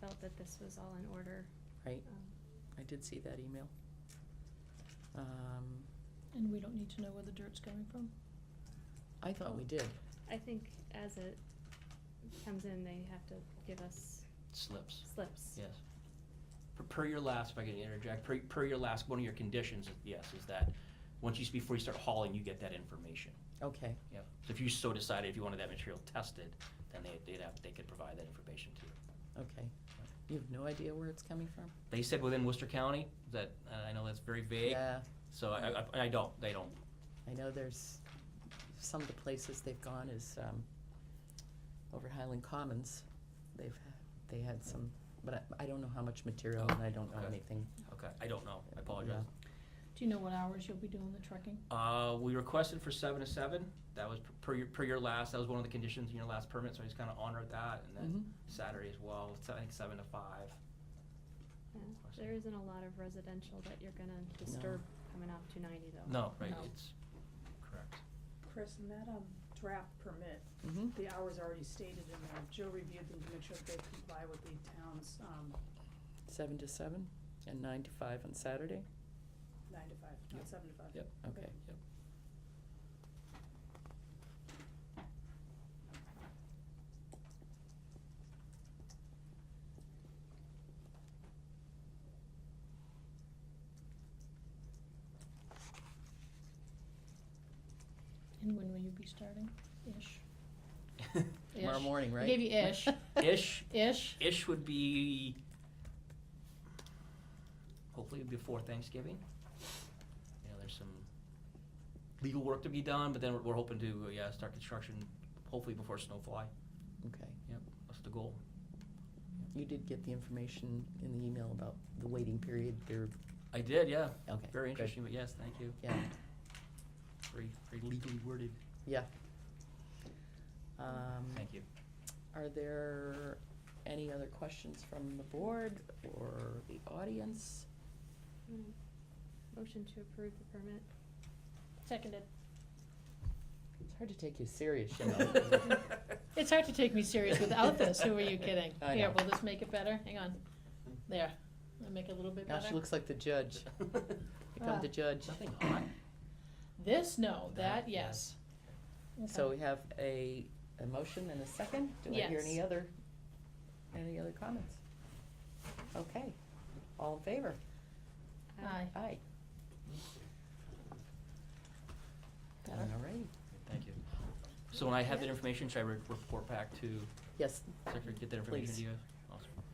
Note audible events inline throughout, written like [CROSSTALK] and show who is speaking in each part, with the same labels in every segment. Speaker 1: felt that this was all in order.
Speaker 2: Right,
Speaker 1: Um,
Speaker 2: I did see that email. Um,
Speaker 3: And we don't need to know where the dirt's coming from?
Speaker 2: I thought we did.
Speaker 1: I think as it comes in, they have to give us
Speaker 4: Slips,
Speaker 1: slips.
Speaker 4: yes. Per, per your last, if I can interject, per, per your last, one of your conditions, yes, is that, once you, before you start hauling, you get that information.
Speaker 2: Okay,
Speaker 4: Yep. So if you so decided, if you wanted that material tested, then they, they'd have, they could provide that information to you.
Speaker 2: okay. You have no idea where it's coming from?
Speaker 4: They said within Worcester County, that, uh, I know that's very vague,
Speaker 2: Yeah,
Speaker 4: so I, I, I don't, they don't.
Speaker 2: I know there's, some of the places they've gone is, um, over Highland Commons. They've, they had some, but I, I don't know how much material and I don't know
Speaker 4: Okay.
Speaker 2: anything.
Speaker 4: Okay, I don't know, I apologize.
Speaker 3: Do you know what hours you'll be doing the trucking?
Speaker 4: Uh, we requested for seven to seven, that was per- per your, per your last, that was one of the conditions in your last permit, so I just kinda honored that, and
Speaker 3: Mm-hmm,
Speaker 4: then
Speaker 2: Mhm.
Speaker 4: Saturday as well, so I think seven to five.
Speaker 1: Yeah. There isn't a lot of residential that you're gonna disturb coming off two ninety though.
Speaker 4: No, right,
Speaker 3: No.
Speaker 4: it's,
Speaker 2: [LAUGHS]
Speaker 4: correct.
Speaker 5: Chris, in that, um, draft permit,
Speaker 2: Mm-hmm.
Speaker 5: the hours already stated in there, Joe reviewed them to make sure that they comply with the town's, um,
Speaker 2: Seven to seven and nine to five on Saturday?
Speaker 5: nine to five,
Speaker 4: Yep.
Speaker 5: not seven to five.
Speaker 4: Yep.
Speaker 2: Okay.
Speaker 4: Yep.
Speaker 3: And when will you be starting? Ish?
Speaker 2: [LAUGHS] Tomorrow
Speaker 3: Ish.
Speaker 2: morning,
Speaker 3: I
Speaker 2: right?
Speaker 3: Gave
Speaker 2: [LAUGHS]
Speaker 3: you ish.
Speaker 4: Ish,
Speaker 3: Ish?
Speaker 4: ish would be hopefully before Thanksgiving. You know, there's some legal work to be done, but then we're, we're hoping to, uh, yeah, start construction hopefully before snowfly.
Speaker 2: Okay.
Speaker 4: Yep, that's the goal.
Speaker 2: You did get the information in the email about the waiting period there.
Speaker 4: I did, yeah.
Speaker 2: Okay,
Speaker 4: Very
Speaker 2: good.
Speaker 4: interesting, but yes, thank you.
Speaker 2: Yeah,
Speaker 4: Very, very legally worded.
Speaker 2: yeah. Um, [LAUGHS]
Speaker 4: Thank you.
Speaker 2: Are there any other questions from the board or the audience?
Speaker 1: Mm. Motion to approve the permit.
Speaker 3: Seconded.
Speaker 2: It's hard to take you serious, you know.
Speaker 3: [LAUGHS]
Speaker 4: There
Speaker 3: It's hard to take me serious without this, who are you kidding?
Speaker 2: [LAUGHS] I
Speaker 3: Here,
Speaker 2: know.
Speaker 3: will this make it better? Hang on. There. I'll make it a little bit
Speaker 2: Now
Speaker 3: better.
Speaker 2: she looks like the judge.
Speaker 4: [LAUGHS]
Speaker 2: Become the
Speaker 3: Ah.
Speaker 2: judge.
Speaker 4: Nothing hot.
Speaker 3: This, no,
Speaker 4: That,
Speaker 3: that, yes. Okay.
Speaker 2: So we have a, a motion and a second. Do I hear
Speaker 3: Yes.
Speaker 2: any other, any other comments? Okay, all in favor?
Speaker 1: Uh,
Speaker 3: Aye.
Speaker 2: Aye.
Speaker 3: Better.
Speaker 2: All right.
Speaker 4: Thank you. So when I have that information, should I re- report back to
Speaker 2: Yes,
Speaker 4: Secretary, get that information
Speaker 2: Please.
Speaker 4: to you?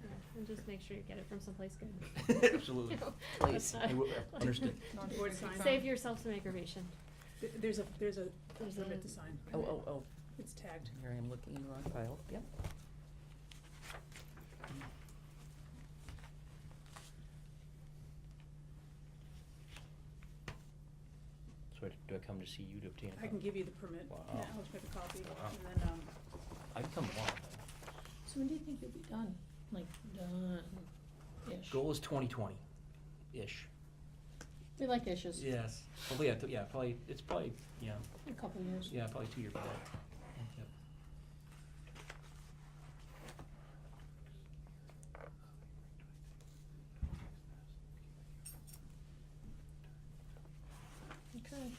Speaker 1: yeah, And just make sure you get it from someplace
Speaker 4: [LAUGHS]
Speaker 1: good. [LAUGHS]
Speaker 4: Awesome. Absolutely.
Speaker 2: Please.
Speaker 1: That's not-
Speaker 4: Hey, we-
Speaker 2: [LAUGHS]
Speaker 4: uh, understood.
Speaker 5: Board sign.
Speaker 1: Save yourself some aggravation.
Speaker 5: Th- There's a, there's a,
Speaker 1: There's
Speaker 5: there's
Speaker 1: a-
Speaker 5: a bit to sign.
Speaker 2: oh, oh, oh,
Speaker 5: It's tagged.
Speaker 2: here I am looking in the wrong file, yep.
Speaker 4: So I- do I come to see you to obtain a
Speaker 5: I can
Speaker 4: copy?
Speaker 5: give you the permit now,
Speaker 4: Wow.
Speaker 5: let's make a copy,
Speaker 4: Wow.
Speaker 5: and then, um,
Speaker 4: I can come along.
Speaker 3: So when do you think you'll be done? Like, done-ish?
Speaker 4: Goal is twenty twenty-ish.
Speaker 3: We like ishes.
Speaker 4: Yes. Probably, yeah, th- yeah, probably, it's probably, yeah,
Speaker 3: A couple years.
Speaker 4: yeah, probably two years from now. Yep.
Speaker 3: Okay.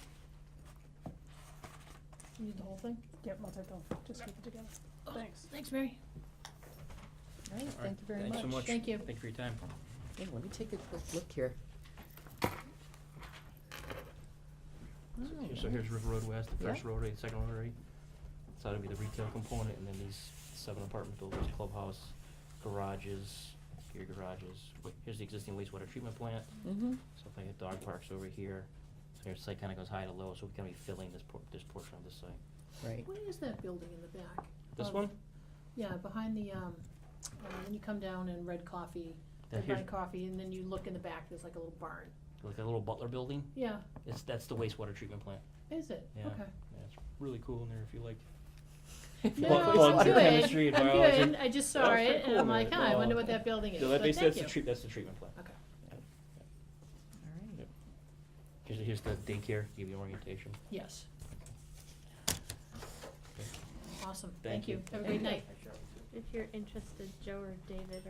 Speaker 3: You need the whole thing?
Speaker 5: yep, I'll take them, just keep it together. Thanks.
Speaker 3: Thanks, Mary.
Speaker 2: All right,
Speaker 4: All right,
Speaker 2: thank you very much.
Speaker 4: Thanks so much.
Speaker 3: Thank you.
Speaker 4: Thank you for your time.
Speaker 2: Hey, let me take a quick look here.
Speaker 4: So here's River Road West, the first
Speaker 2: Yeah.
Speaker 4: rotary, the second rotary. So that'll be the retail component, and then these seven apartment buildings, clubhouse, garages, gear garages. Here's the existing wastewater treatment plant,
Speaker 2: Mm-hmm,
Speaker 4: so if I get dog parks over here, so your site kinda goes high to low, so we're gonna be filling this por- this portion of the site.
Speaker 2: right.
Speaker 3: What is that building in the back?
Speaker 4: This
Speaker 3: Um,
Speaker 4: one?
Speaker 3: Yeah, behind the, um, uh, when you come down and Red Coffee,
Speaker 4: That
Speaker 3: Red Vine
Speaker 4: here's,
Speaker 3: Coffee, and then you look in the back, there's like a little barn.
Speaker 4: like a little Butler building,
Speaker 3: Yeah,
Speaker 4: it's, that's the wastewater treatment plant.
Speaker 3: is it?
Speaker 4: Yeah.
Speaker 3: Okay.
Speaker 4: Yeah, it's really cool in there if
Speaker 3: [LAUGHS]
Speaker 4: you like.
Speaker 3: No,
Speaker 4: Well,
Speaker 3: I'm
Speaker 4: well,
Speaker 3: good.
Speaker 4: biochemistry and biology.
Speaker 3: I'm good. I just
Speaker 4: That
Speaker 3: saw
Speaker 4: was pretty
Speaker 3: it,
Speaker 4: cool
Speaker 3: and I'm
Speaker 4: there.
Speaker 3: like, huh, I
Speaker 4: No,
Speaker 3: wonder
Speaker 4: uh,
Speaker 3: what that building is,
Speaker 4: No, that
Speaker 3: but
Speaker 4: base,
Speaker 3: thank
Speaker 4: that's
Speaker 3: you.
Speaker 4: the treat, that's the treatment plant.
Speaker 3: Okay.
Speaker 2: All right.
Speaker 4: Here's, here's the daycare, give you orientation.
Speaker 3: Yes.
Speaker 4: Okay.
Speaker 3: Awesome,
Speaker 4: Thank
Speaker 3: thank you.
Speaker 4: you.
Speaker 3: Have a great night.
Speaker 1: If you're interested, Joe or David are